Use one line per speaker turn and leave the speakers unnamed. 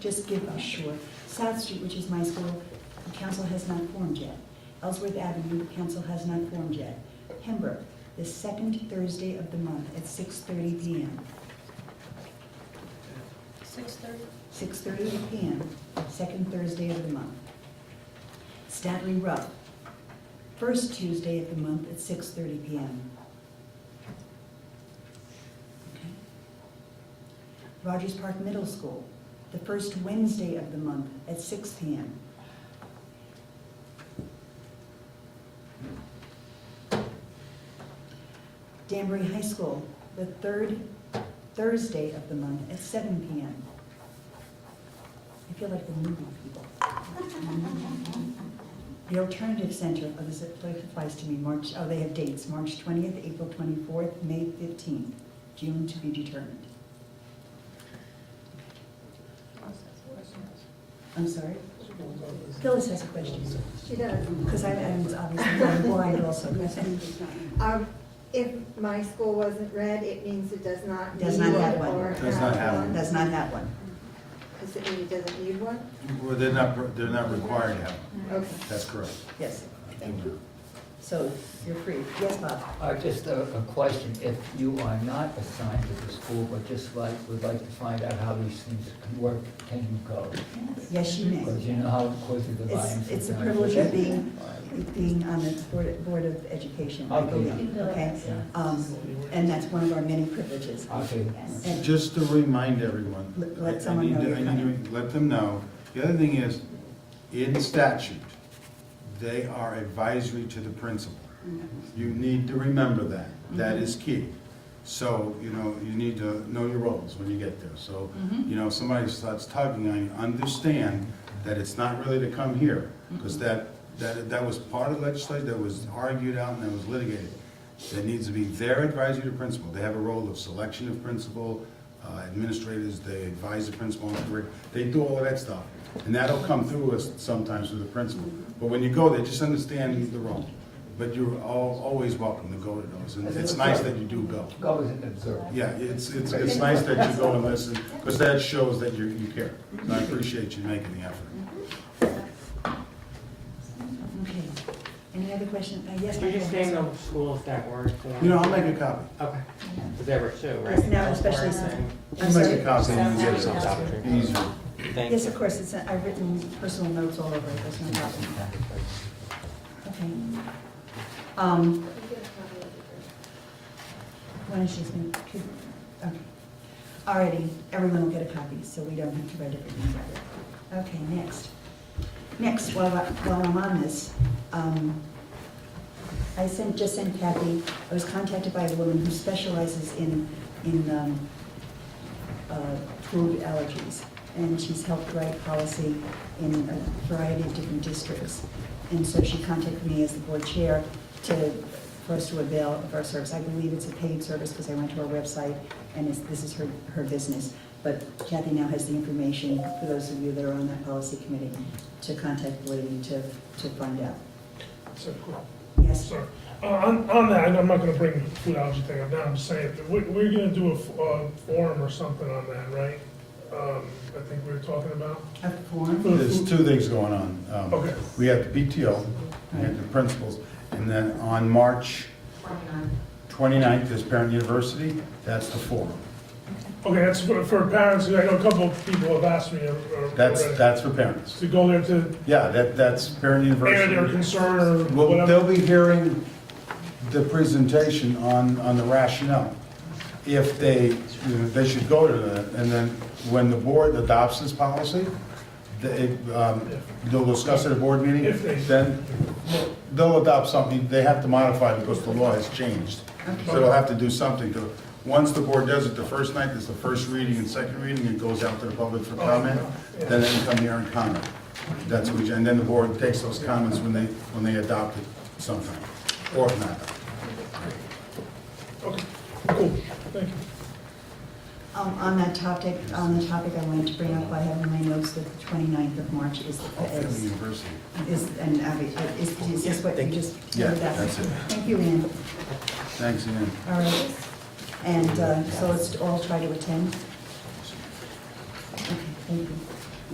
just give us short. South Street, which is my school, the council has not formed yet. Ellsworth Avenue, the council has not formed yet. Pembroke, the second Thursday of the month at 6:30 PM.
Six thirty?
6:30 PM, second Thursday of the month. Stanley Rupp, first Tuesday of the month at 6:30 PM. Okay. Rogers Park Middle School, the first Wednesday of the month at 6 PM. Danbury High School, the third Thursday of the month at 7 PM. I feel like the movie people. The Alternative Center, oh, this applies to me, March, oh, they have dates, March 20th, April 24th, May 15th, June to be determined. I'm sorry? Phyllis has a question.
She does.
Because I am obviously I'm blind also. Yes.
Um, If my school wasn't red, it means it does not need
Does not have
one
one.
or
Does not have one.
Does not have one.
Does it mean it doesn't need one?
Well, they're not, they're not required to have one.
Okay.
That's correct.
Yes.
Thank you.
So you're free. Yes, Bob?
Uh, Just a a question, if you are not assigned to the school, but just like, would like to find out how these things can work, can you go?
Yes, you may.
Because you know how quickly the
It's,
lines.
it's a privilege of being, being on the Board, Board of Education, I
Okay.
believe, okay? Um, and that's one of our many privileges.
Okay.
And-
Just to remind everyone.
Let- let
I- I
someone
need
know
to-
you're
I need to Let them know. The other thing is, in statute, they are advisory to the principal. You need to remember that. That is key. So, you know, you need to know your roles when you get there. So, you know, if somebody starts tugging on you, understand that it's not really to come here. Because that, that, that was part of legislation, that was argued out and that was litigated. That needs to be their advisory to principal. They have a role of selection of principal, uh, administrators, they advise the principal on curriculum, they do all of that stuff. And that'll come through us sometimes with the principal. But when you go there, just understand the role. But you're al- always welcome to go to those, and it's nice that you do go.
Go as an observer.
Yeah, it's, it's, it's nice that you go and listen, because that shows that you, you care. And I appreciate you making the effort.
Okay. Any other question? Uh, yes,
Can
Michael?
you just name the schools that were?
You know, I'll make a copy.
Okay, because there were two, right?
Yes, now especially so.
I'll
I'm
make
sorry.
a copy and you get it something easier.
Thank
Yes,
you.
of course, it's, uh, I've written personal notes all over it, there's no problem. Okay. Um, When is she's going to, okay. Alrighty, everyone will get a copy, so we don't have to write everything separate. Okay, next. Next, while, I- while I'm on this, um, I sent, just sent Kathy, I was contacted by a woman who specializes in, in, um, uh, food allergies. And she's helped write policy in a variety of different districts. And so she contacted me as the board chair to, for us to avail of our service. I believe it's a paid service because I went to her website and it's, this is her, her business. But Kathy now has the information, for those of you that are on that policy committee, to contact the lady to, to find out.
So, cool.
Yes,
Sorry. Uh, On, on that, and I'm not gonna bring the food allergy thing up now, I'm just saying, we, we're gonna do a, f- uh forum or something on that, right? Um, I think we were talking about.
a form?
There's two things going on. Um,
Okay.
We have the PTO, we have the principals, and then on March 29th is Parent University, that's the forum.
Okay, that's for, for parents, 'cause I know a couple of people have asked me, uh, uh,
That's,
already
that's for parents.
to go there to
Yeah, that, that's Parent
air their
University.
concern or
Well,
whatever.
they'll be hearing the presentation on, on the rationale. If they, you know, they should go to that, and then when the board adopts this policy, they, um, they'll discuss at a board meeting,
If they-
then they'll adopt something, they have to modify it because the law has changed. So they'll have to do something to, once the board does it, the first night, there's the first reading and second reading, it goes out to the public for comment, then they can come here and comment. That's what we, and then the board takes those comments when they, when they adopt it sometime, or if not.
Okay, cool, thank you.
Um, On that topic, on the topic I wanted to bring up, I have in my notes that the 29th of March is,
Family
is
University.
Is, and Abby, uh, is, is this what you just?
Yeah, that's it.
Thank you, Ann.
Thanks, Ian.
All right. And uh, so let's all try to attend. Okay, thank you.